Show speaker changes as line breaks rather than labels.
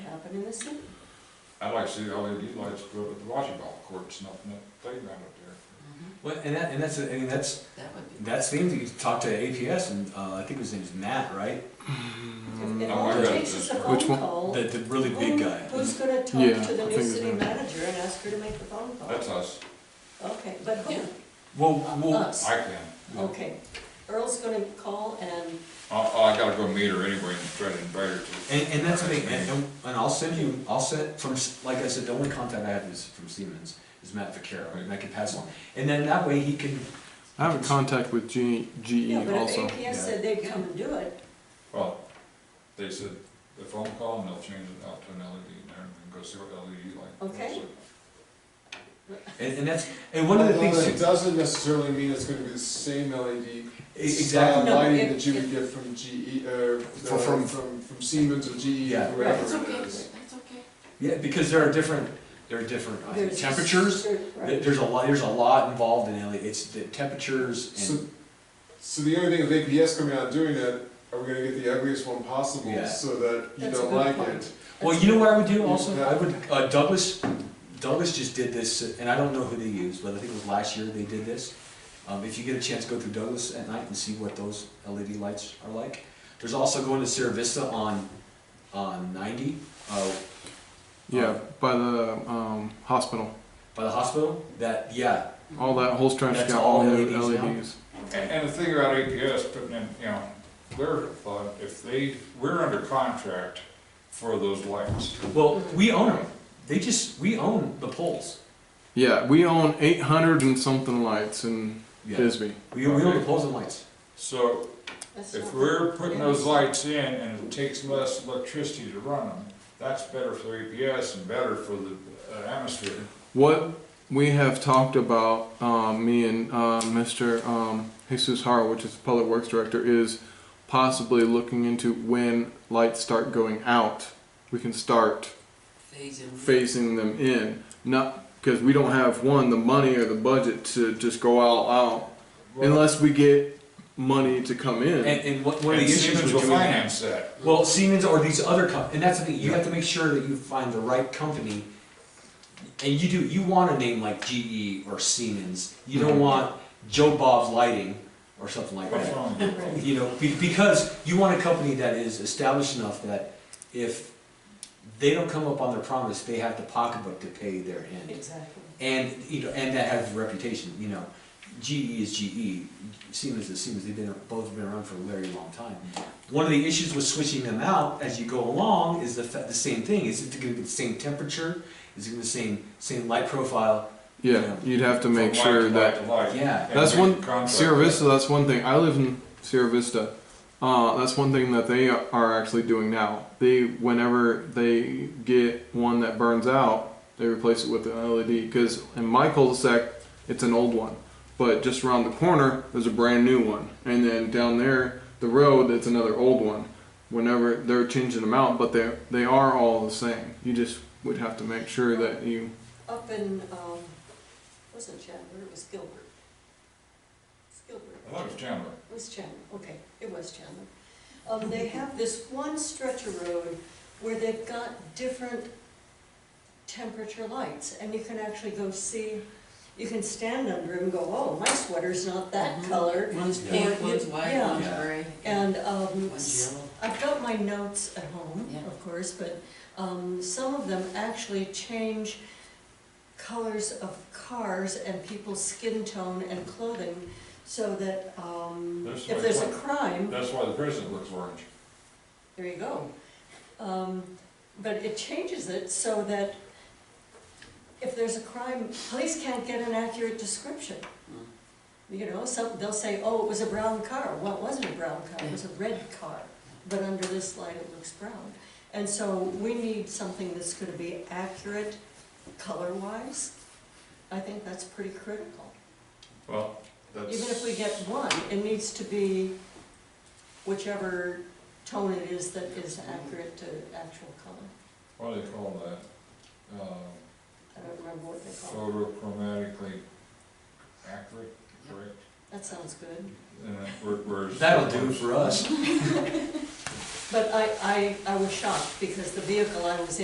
happen in the city.
I'd like to see the LED lights put up at the volleyball courts, nothing at the playground up there.
Well, and that, and that's, I mean, that's,
That would be.
that's the thing, you talk to APS and, uh, I think his name's Matt, right?
If- If
Oh,
all
I
it
got
takes
this.
is a phone
Which one?
call,
The, the really big
who-
guy.
who's gonna
Yeah,
talk to the
I
new
think it's
city
him.
manager and ask her to make the phone call?
That's us,
Okay, but who?
Well, well,
Us,
I can,
okay. Earl's gonna call and,
I, I gotta go meet her anyway and try to invite her to.
and, and that's the thing, and,
Meeting.
and and I'll send you, I'll send, from, S- like I said, the only contact I have is from Siemens, is Matt Vaccaro, and I can pass on. And then that way he can,
I have a contact with G- GE
yeah, but if
also.
APS
yeah.
said they'd come and do it,
Well, they said the phone call and they'll change it out to an LED and there and go see what E LED light.
Okay.
and, and that's, and one of the
Although
things. E-,
It doesn't necessarily mean it's gonna be the same LED style
Exactly.
No,
lighting
it-
that you would
it-
get from GE, or
For- from-
from, from Siemens or GE,
Yeah.
That's
whoever it is.
Yeah, because there are different, there are different uh,
there's.
temperatures. There-
Right.
There's a lot, there's a lot involved in LED. It's the temperatures
So,
and,
so the only thing with APS coming out doing that, are we gonna get the ugliest one possible,
Yeah.
so that you
That's a
don't
good
like
point.
it?
well, you know what I would do also?
Yeah.
I would, uh, Douglas, Douglas just did this, and I don't know who they used, but I think it was last year they did this. Um, if you get a chance, go through Douglas at night and see what those LED lights are like. There's also going to Sierra Vista on, on ninety, uh,
Yeah, by the um, hospital.
by the hospital, that, yeah,
All that whole stretch
That's
got
all E
all E new
LEDs now?
LEDs.
And, and the thing about APS putting in, you know, their thought, if they, we're under contract for those lights.
well, we own them. They just, we own the poles.
Yeah, we own 800 and something lights in
Yeah.
Bisbee.
We, we own the poles and lights.
So
That's
if
not-
we're putting
yeah.
those lights in and it takes less electricity to run them, that's better for APS and better for the uh, atmosphere.
What we have talked about, um, me and uh, Mr. Um, Jesus Haro, which is the Public Works Director, is possibly looking into when lights start going out. We can start phasing them in, not because we don't have one the money or the budget to just go all out
Well,
unless we get money to come in.
And, and what, one of
And
the issues
Siemens will
with doing that.
finance that.
Well, Siemens or these other companies, and that's the thing, you have to make sure that you find the right company. And you do, you want a name like GE or Siemens, you don't want Joe Bob's Lighting or something like
What's
that.
wrong with that?
Right.
You know, be- because you want a company that is established enough that if they don't come up on their promise, they have the pocketbook to pay their end.
Exactly.
and you know, and that has reputation. You know, GE is GE, Siemens is Siemens. They've been both been around for a very long time. One of the issues with switching them out as you go along is the fa- the same thing. Is it going to be the same temperature? Is it going to be the same same light profile?
yeah, you'd have to make
From light
sure
light
that
to light.
Yeah.
And
That's
make
one-
the contract.
Sierra Vista, that's one thing. I live in Sierra Vista. Uh, that's one thing that they are actually doing now. They, whenever they get one that burns out, they replace it with an LED. Because in my cul-de-sac, it's an old one, but just around the corner, there's a brand new one, and then down there, the road, it's another old one. Whenever they're changing them out, but they they are all the same. You just would have to make sure that you.
Up in, um, wasn't Chandler, it was Gilbert. It's Gilbert.
I thought it was Chandler.
It was Chandler, okay, it was Chandler. Um, they have this one stretch of road where they've got different temperature lights, and you can actually go see, you can stand under them and go, oh, my sweater's not that
Mhm.
color.
One's
Yeah.
Yeah.
pink, one's white,
Yeah.
one's
Yeah.
gray.
And, um,
One's yellow.
I've got my notes at home,
Yeah.
of course, but, um, some of them actually change colors of cars and people's skin tone and clothing, so that, um,
There's
if
my
there's a
point.
crime,
That's why the president looks orange.
there you go. Um, but it changes it so that if there's a crime, police can't get an accurate description. You know, some, they'll say, oh, it was a brown car, well, it wasn't a brown car, it was a red car, but under this light it looks brown. And so we need something that's gonna be accurate color-wise. I think that's pretty critical.
Well, that's.
Even if we get one, it needs to be whichever tone it is that is accurate to actual color.
What do they call that? Uh,
I don't remember what they call it.
photochromatically accurate, correct?
That sounds good.
And then we're, we're.
That'll do for us.
But I, I, I was shocked because the vehicle I was in.